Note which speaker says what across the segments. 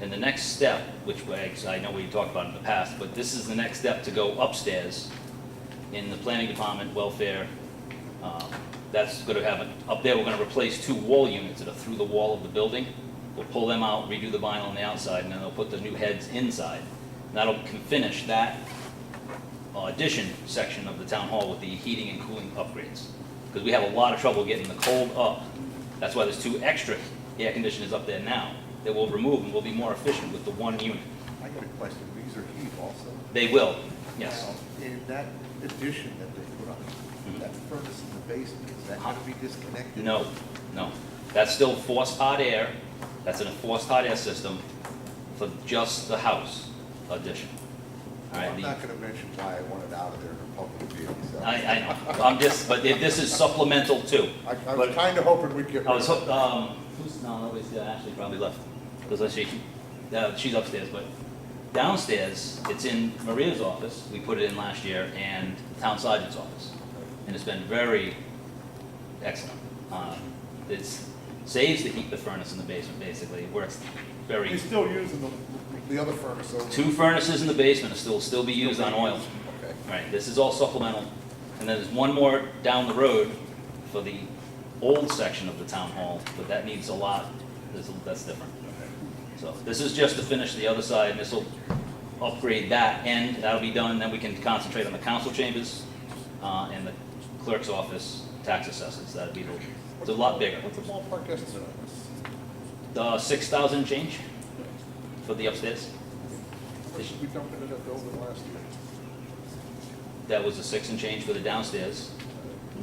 Speaker 1: And the next step, which, was- I know we talked about in the past, but this is the next step to go upstairs in the planning department, welfare. um, That's gonna have, a- up there, we're gonna replace two wall units that are through the wall of the building. We'll pull them out, redo the vinyl on the outside, and then they'll put the new heads inside. And That'll can finish that uh, addition section of the town hall with the heating and cooling upgrades. Because we have a lot of trouble getting the cold up. That's why there's two extra air conditioners up there now that we'll remove and we'll be more efficient with the one unit.
Speaker 2: I got a question, these are heat also.
Speaker 1: They will, yes. Mm-hmm.
Speaker 2: Now, In that addition that they put on, that furnace in the basement, is that gonna be disconnected?
Speaker 1: No, no. That's still forced hot air. That's in a forced hot air system for just the house addition. All right,
Speaker 2: I'm
Speaker 1: the-
Speaker 2: not gonna mention why I want it out of there in a public view, so.
Speaker 1: I, I know. I'm just, but if this is supplemental too.
Speaker 2: I, I
Speaker 1: But-
Speaker 2: was kinda hoping we'd get rid
Speaker 1: I was,
Speaker 2: of it.
Speaker 1: hooked, um, who's, no, nobody's, there. Ashley probably left, because she, uh, she's upstairs, but downstairs, it's in Maria's office, we put it in last year, and the town sergeant's office, and it's been very excellent. Um, It's, saves the heat, the furnace in the basement, basically, it works
Speaker 2: You're
Speaker 1: very,
Speaker 2: still using the, the other furnace over.
Speaker 1: two furnaces in the basement will still, still be used on oil.
Speaker 2: Okay.
Speaker 1: Right, this is all supplemental, and then there's one more down the road for the old section of the town hall, but that needs a lot, That's- that's different. So this is just to finish the other side, and this'll upgrade that end, that'll be done, then we can concentrate on the council chambers, uh, and the clerk's office, tax assessors, that'd be, the- it's a lot bigger.
Speaker 2: What's the ballpark estimate on this?
Speaker 1: The six thousand change for the upstairs,
Speaker 2: What should we dump it in that building last year?
Speaker 1: that was the six and change for the downstairs,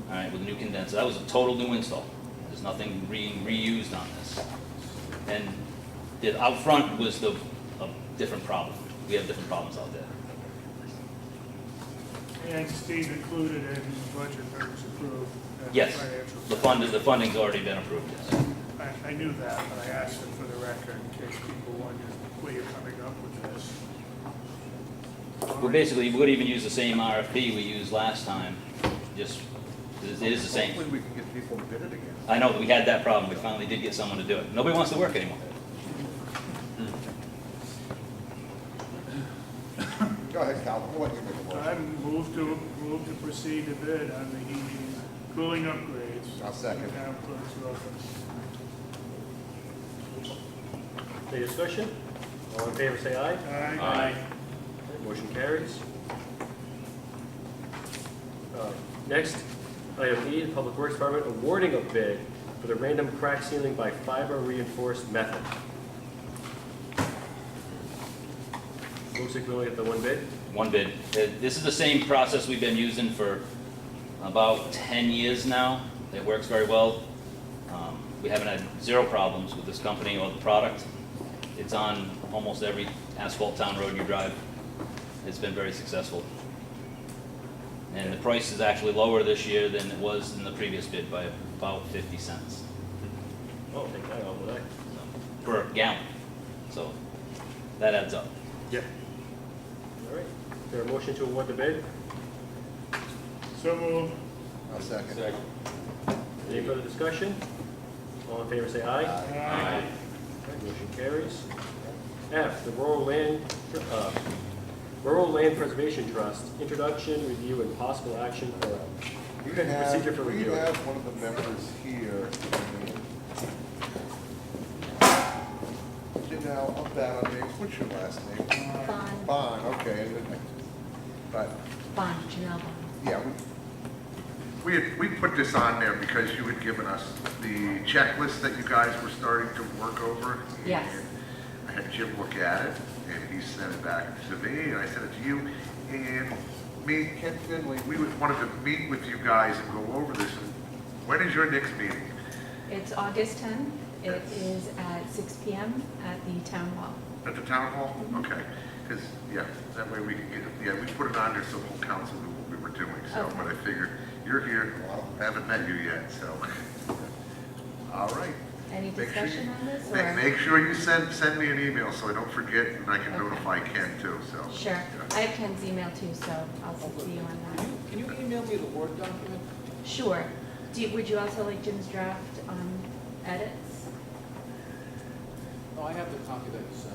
Speaker 1: all right, with a new condenser. That was a total new install. There's nothing re- reused on this. And the out front was the, a different problem. We have different problems out there.
Speaker 3: And Steve included in the budget that was approved. and
Speaker 1: Yes,
Speaker 3: financial-
Speaker 1: the fund, the funding's already been approved, yes.
Speaker 3: I, I knew that, but I asked it for the record in case people wondered where you're coming up with this.
Speaker 1: Well, basically, we would even use the same RFP we used last time, just, it is the same.
Speaker 2: Hopefully we can get people to bid it again.
Speaker 1: I know, we had that problem. We finally did get someone to do it. Nobody wants to work anymore.
Speaker 2: Go ahead, Calvin, we'll let you make a
Speaker 3: I
Speaker 2: motion.
Speaker 3: move to, move to proceed to bid on the heating, cooling upgrades.
Speaker 2: I'll second.
Speaker 3: in the town clerk's office.
Speaker 4: Any discussion? All in favor, say aye.
Speaker 3: Aye.
Speaker 4: Motion carries. Uh, Next, item E, the Public Works Department awarding a bid for the random crack sealing by fiber reinforced method. Looks like we only have the one bid.
Speaker 1: One bid. Uh, This is the same process we've been using for about 10 years now. It works very well. Um, We haven't had zero problems with this company or the product. It's on almost every asphalt town road you drive. It's been very successful. And the price is actually lower this year than it was in the previous bid by about 50 cents
Speaker 4: Oh, take that all the way.
Speaker 1: so, per gallon. So that adds up.
Speaker 4: Yep. All right, is there a motion to award the bid?
Speaker 3: So move.
Speaker 2: I'll second.
Speaker 4: Any further discussion? All in favor, say aye.
Speaker 2: Aye.
Speaker 3: Aye.
Speaker 4: Motion carries. F, the Rural Land, uh, Rural Land Preservation Trust, introduction, review, and possible action for
Speaker 2: We
Speaker 4: Okay, procedure
Speaker 2: have,
Speaker 4: for
Speaker 2: we
Speaker 4: review.
Speaker 2: have one of the members here. Janelle, I'm bad on names, what's your last name?
Speaker 5: Bond,
Speaker 2: Bond, okay. But,
Speaker 5: Bond, Janelle Bond.
Speaker 2: yeah, we, we had- we put this on there because you had given us the checklist that you guys were starting to work over.
Speaker 5: Yes.
Speaker 2: And I had Jim look at it, and he sent it back to me, and I sent it to you. And me, and Ken Finley, we would- wanted to meet with you guys and go over this. When is your next meeting?
Speaker 5: It's August 10th. It is at 6 PM at the town hall.
Speaker 2: At the town hall? Okay, because, yeah, that way we can get, it- yeah, we put it on there so the whole council knew what we were doing, so,
Speaker 5: Okay.
Speaker 2: but I figured, you're here, I haven't met you yet, so. All right.
Speaker 5: Any
Speaker 2: Make sure you-
Speaker 5: discussion on this
Speaker 2: Ma-
Speaker 5: or?
Speaker 2: Make sure you send, send me an email so I don't forget, and I can
Speaker 5: Okay.
Speaker 2: notify Ken too, so.
Speaker 5: Sure. I have Ken's email too, so I'll see you on that.
Speaker 2: Mm-hmm.
Speaker 6: Can you email me the Word document?
Speaker 5: Sure. Do, you- would you also like Jim's draft um, edits?
Speaker 6: No, I Oh, have the copy that you sent.